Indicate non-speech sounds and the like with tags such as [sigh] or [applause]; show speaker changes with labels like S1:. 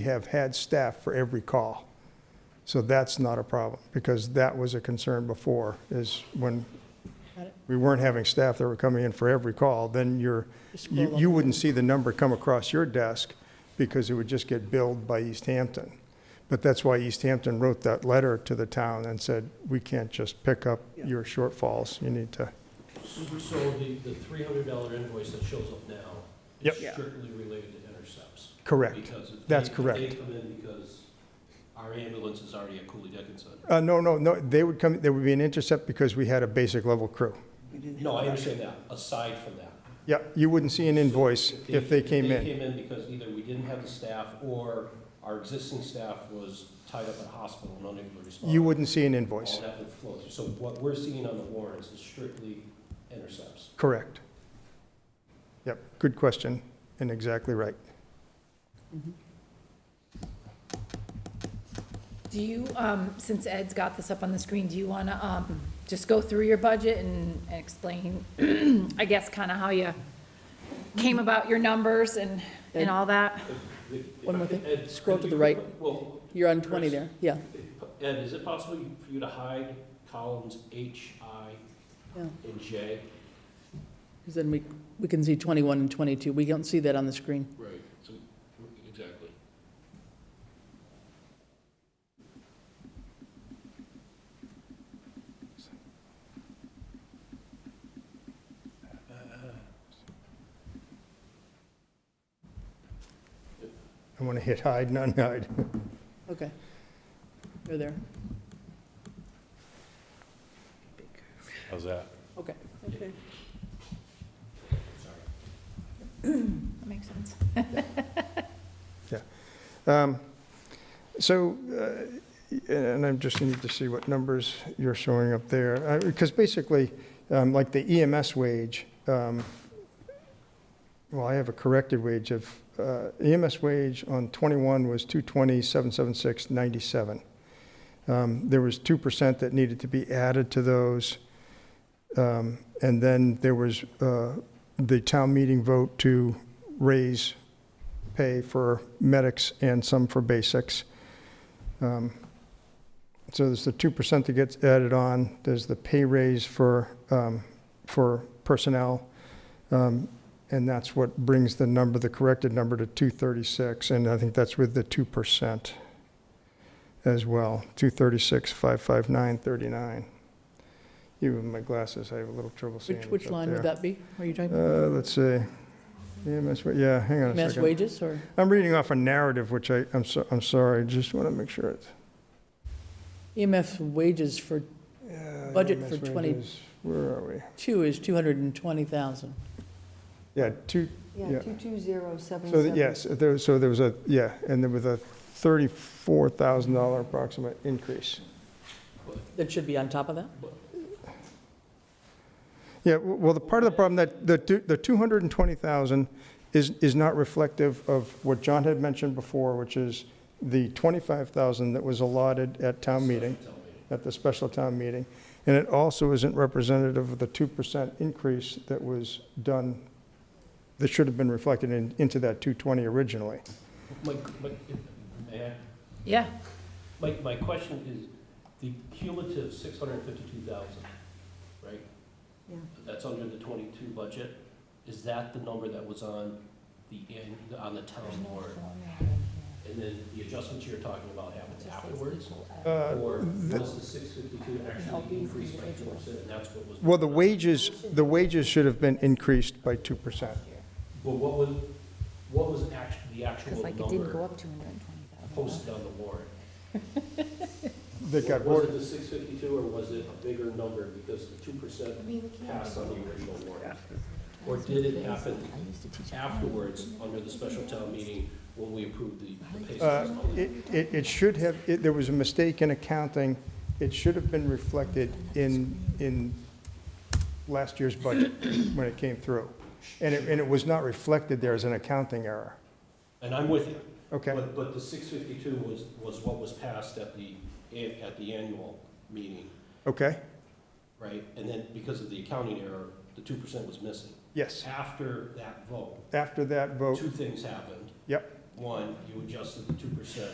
S1: We have had staff for every call. So that's not a problem, because that was a concern before, is when we weren't having staff that were coming in for every call, then you're, you, you wouldn't see the number come across your desk, because it would just get billed by East Hampton. But that's why East Hampton wrote that letter to the town and said, we can't just pick up your shortfalls, you need to. Mm-hmm.
S2: So the, the three hundred dollar invoice that shows up now
S1: Yep.
S2: is strictly related to intercepts?
S1: Correct.
S2: Because if
S1: That's
S2: they- if They
S1: correct.
S2: come in because our ambulance is already at Cooley Dickinson.
S1: Uh, no, no, no, they would come, there would be an intercept because we had a basic level crew.
S2: No, I understand that, aside from that.
S1: Yeah, you wouldn't see an invoice if they came in.
S2: They came in because either we didn't have the staff or our existing staff was tied up at a hospital and unable to respond.
S1: You wouldn't see an
S2: All
S1: invoice.
S2: that would flow through. So what we're seeing on the warrants is strictly intercepts.
S1: Correct. Yep, good question, and exactly right.
S3: Do you, um, since Ed's got this up on the screen, do you want to um, just go through your budget and and explain, [clears throat] I guess, kind of how you came about your numbers and, and all that?
S4: One more thing.
S2: Ed,
S4: Scroll
S2: could
S4: to
S2: you
S4: the right.
S2: put- Well,
S4: You're on 20 there, yeah.
S2: Ed, is it possible you- for you to hide columns H, I,
S4: Yeah.
S2: and J?
S4: Because then we, we can see 21 and 22. We don't see that on the screen.
S2: Right, so, exactly.
S1: I want to hit hide and unhide.
S4: Okay. You're there.
S5: How's that?
S4: Okay.
S3: That makes sense.
S1: Um, So, uh, and I'm just need to see what numbers you're showing up there, because basically, um, like the EMS wage, um, well, I have a corrected wage of, uh, EMS wage on 21 was 220,776.97. Um, There was 2% that needed to be added to those. Um, And then there was uh, the town meeting vote to raise pay for medics and some for basics. Um, So there's the 2% that gets added on, there's the pay raise for, um, for personnel, Um, and that's what brings the number, the corrected number to 236, and I think that's with the 2% as well, 236, 559, 39. Even with my glasses, I have a little trouble seeing
S4: Which,
S1: what's
S4: which
S1: up
S4: line would
S1: there.
S4: that be? Are you talking
S1: Uh, Let's see, EMS, wa- yeah, hang on a second.
S4: mass wages or?
S1: I'm reading off a narrative, which I, I'm, so, I'm sorry, just want to make sure it's.
S4: EMF E wages for
S1: Yeah,
S4: Budget
S1: EMS
S4: for 20.
S1: wages, Where are we?
S4: two is 220,000.
S1: Yeah, two, Yeah. so,
S6: Yeah,
S1: the-
S6: 220777.
S1: yes, there, so there was a, yeah, and there was a $34,000 approximate increase.
S4: That should be on top of that?
S1: Yeah, w- well, the part of the problem that, the two- the 220,000 is, is not reflective of what John had mentioned before, which is the 25,000 that was allotted at town meeting, at the special town meeting. And it also isn't representative of the 2% increase that was done, that should have been reflected in, into that 220 originally.
S2: My, my, may I?
S3: Yeah,
S2: my, my question is, the cumulative six hundred and fifty-two thousand, right?
S6: Yeah.
S2: That's under the twenty-two budget, is that the number that was on the, end on the town board? And then the adjustments you're talking about happened afterwards?
S1: Uh,
S2: Or was the six fifty-two actually increased by two percent, and that's what was?
S1: Well, the wages, the wages should have been increased by 2%.
S2: But what was, what was act, the actual
S3: because like it didn't go
S2: number
S3: up 220,000.
S2: posted on the warrant?
S1: That got
S2: Was
S1: voted,
S2: it the six fifty-two, or was it a bigger number because the two percent passed on the original warrant? Or did it happen afterwards, under the special town meeting, when we approved the the pay
S1: Uh,
S2: system?
S1: It, it it should have, it- there was a mistake in accounting. It should have been reflected in, in last year's budget when it came through. And it, and it was not reflected there as an accounting error.
S2: And I'm with you.
S1: Okay,
S2: But, but the six fifty-two was, was what was passed at the, an- at the annual meeting,
S1: okay,
S2: right? And then because of the accounting error, the two percent was missing.
S1: yes.
S2: After that vote,
S1: After that vote,
S2: two things happened.
S1: Oh. Yep.
S2: one, you adjusted the two percent